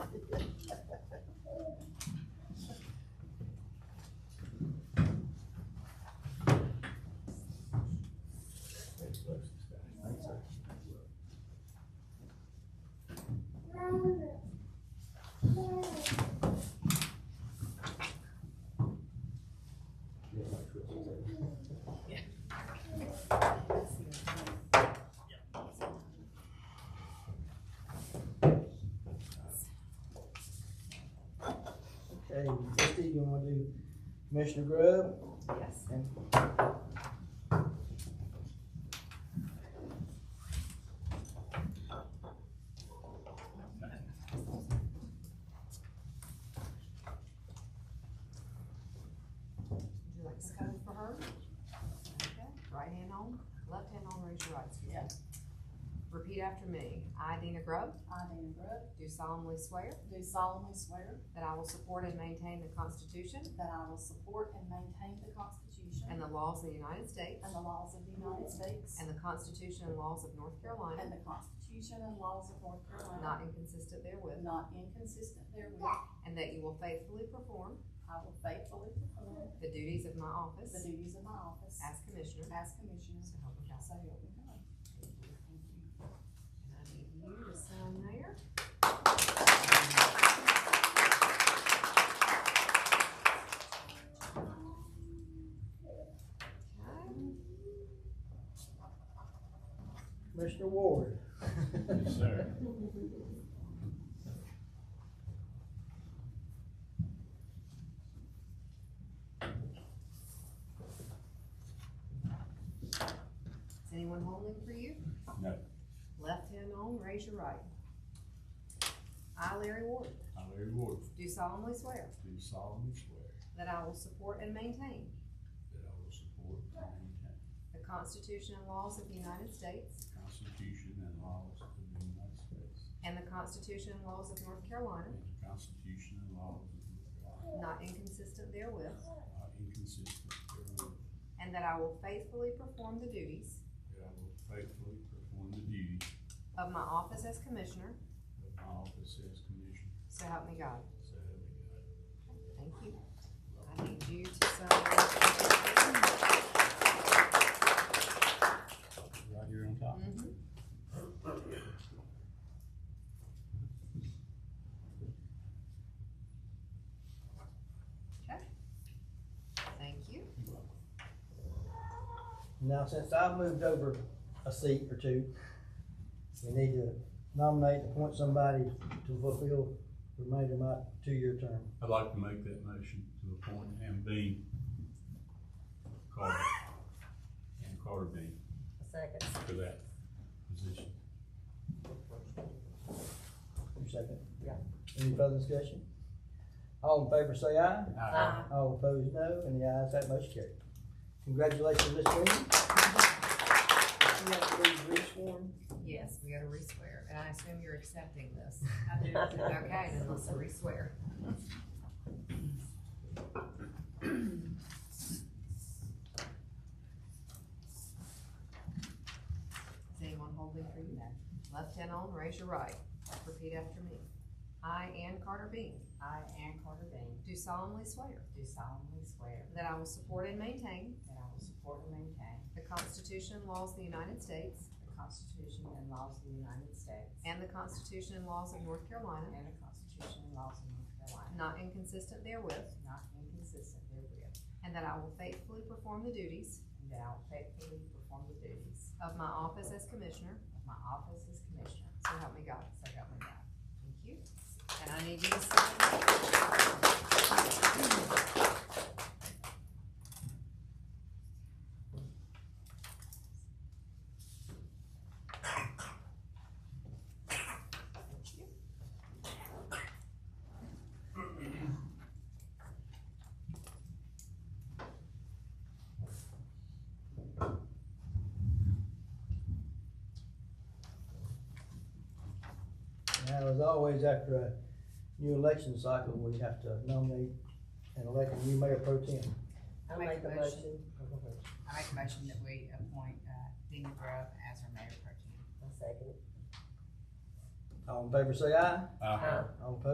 Okay, trustee, you wanna do Commissioner Grubb? Yes. And Would you like to come for her? Okay. Right hand on, left hand on, raise your right. excuse me. Repeat after me. I, Dina Grove, I, Dana Brooke, do solemnly swear do solemnly swear that I will support and maintain the Constitution that I will support and maintain the Constitution and the laws of the United States and the laws of the United States and the Constitution and laws of North Carolina, and the Constitution and laws of North Carolina, not inconsistent therewith, not inconsistent therewith. and that you will faithfully perform I will faithfully perform the duties of my the office duties of my office as Commissioner. as Commissioner, So help me God. so help me God. And I need you to sign there. Okay. Commissioner Ward? Yes, sir. Is anyone holding for you? No. Left hand on, raise your right. I, Larry Ward, I, Larry Ward, do solemnly swear do solemnly swear that I will support and maintain that I will support and maintain the Constitution and laws of the United States the Constitution and laws of the United States and the Constitution and laws of North Carolina, and the Constitution and laws of North Carolina, not inconsistent therewith, not inconsistent therewith, and that I will faithfully perform the duties that I will faithfully perform the duties of my office as Commissioner, of my office as Commissioner, so help me God. so help me God. Thank you. I need you to sign. Right here on top. Mhm. Okay. Thank you. Now, since I've moved over a seat or two, we need to nominate, appoint somebody to fulfill the remainder of my two-year term. I'd like to make that motion to appoint Ann Bean Carter, Ann Carter Bean. Second. For that position. You second? Yeah. Any further discussion? All in favor say aye. Aye. All opposed, no, and the ayes have motion carried. Congratulations, Ms. Green. You have to be re-sworn. Yes, we gotta re-swear, and I assume you're accepting this. I do. Okay, then let's re-swear. Is anyone holding for you? Left hand on, raise your right. Repeat after me. I, Ann Carter Bean, I, Ann Carter Bean, do solemnly swear do solemnly swear that I will support and maintain that I will support and maintain the Constitution and laws of the United States the Constitution and laws of the United States and the Constitution and laws of North Carolina, and the Constitution and laws of North Carolina, not inconsistent therewith, not inconsistent therewith, And that I will faithfully perform the duties and that I will faithfully perform the duties of my office as Commissioner, of my office as Commissioner, so help me God. so help me God. Thank you. And I need you to sign. Now, as always, after a new election cycle, we have to nominate and elect a new mayor pro tem. I make a motion, I make a motion that we appoint, uh, Dina Grove as our mayor pro tem. All in favor say aye. Aye. All opposed,